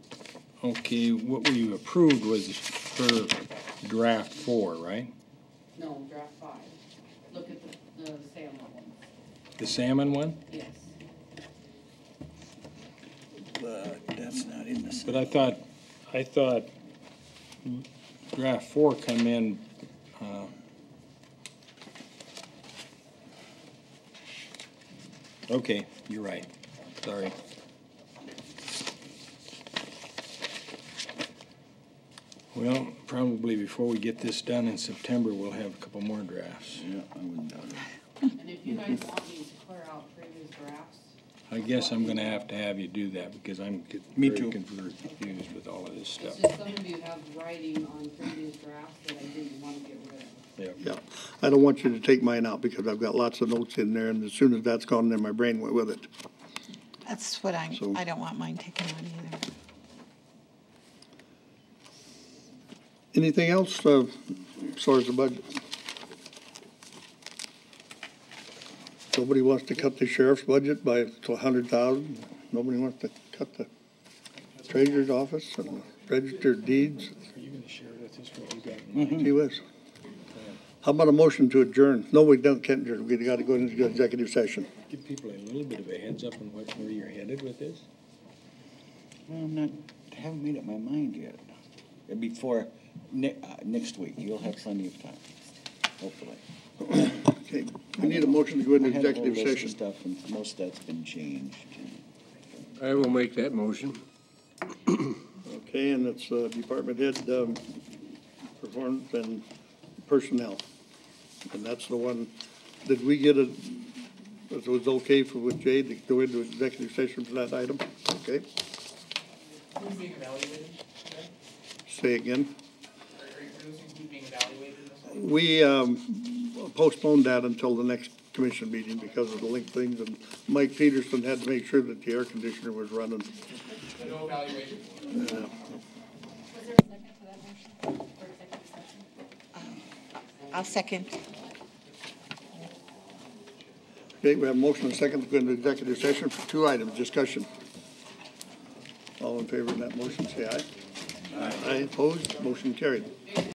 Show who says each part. Speaker 1: Okay, what we approved was for draft four, right?
Speaker 2: No, draft five. Look at the, the salmon ones,
Speaker 1: The salmon one?
Speaker 2: yes.
Speaker 3: But that's not in this.
Speaker 1: But I thought, I thought draft four come in, uh, okay, you're right, sorry. Well, probably before we get this done in September, we'll have a couple more drafts.
Speaker 3: Yeah, I wouldn't doubt it.
Speaker 2: And if you guys want me to clear out previous drafts,
Speaker 1: I guess I'm gonna have to have you do that because I'm get-
Speaker 3: Me
Speaker 1: very
Speaker 3: too.
Speaker 1: confused with all of this
Speaker 2: it's
Speaker 1: stuff.
Speaker 2: just some of you have writing on previous drafts that I didn't want to get rid of.
Speaker 1: Yep.
Speaker 4: Yeah, I don't want you to take mine out because I've got lots of notes in there and as soon as that's gone, then my brain went with it.
Speaker 5: That's what I,
Speaker 4: So-
Speaker 5: I don't want mine taken on either.
Speaker 4: Anything else, uh, as far as the budget? Nobody wants to cut the sheriff's budget by a hundred thousand. Nobody wants to cut the treasurer's office and register of deeds.
Speaker 1: Are you gonna share with us what you got?
Speaker 3: Mm-hmm.
Speaker 4: Gee whiz. How about a motion to adjourn? No, we don't, can't adjourn. We gotta go into executive session.
Speaker 1: Give people a little bit of a heads up on what, where you're headed with this?
Speaker 3: Well, I'm not, I haven't made up my mind yet. It'll be for ne- uh, next week. You'll have plenty of time, hopefully.
Speaker 4: Okay, we need a motion to go into
Speaker 3: I had a whole
Speaker 4: executive
Speaker 3: list of
Speaker 4: session.
Speaker 3: Stuff and most of that's been changed.
Speaker 6: I will make that motion.
Speaker 4: Okay, and it's uh, department head um, performance and personnel. And that's the one, did we get a, it was okay for with Jay to go into executive session for that item? Okay,
Speaker 7: Who's being evaluated? today?
Speaker 4: say again.
Speaker 7: Are are you producing who's being evaluated this week?
Speaker 4: We um, postponed that until the next commission meeting because of the link things. And Mike Peterson had to make sure that the air conditioner was running. Uh,
Speaker 7: No evaluation.
Speaker 8: Was there a second to that motion for executive session?
Speaker 5: I'll second.
Speaker 4: Okay, we have a motion and a second to go into executive session for two items, discussion. All in favor of that motion, say aye. Aye. Opposed, motion carried.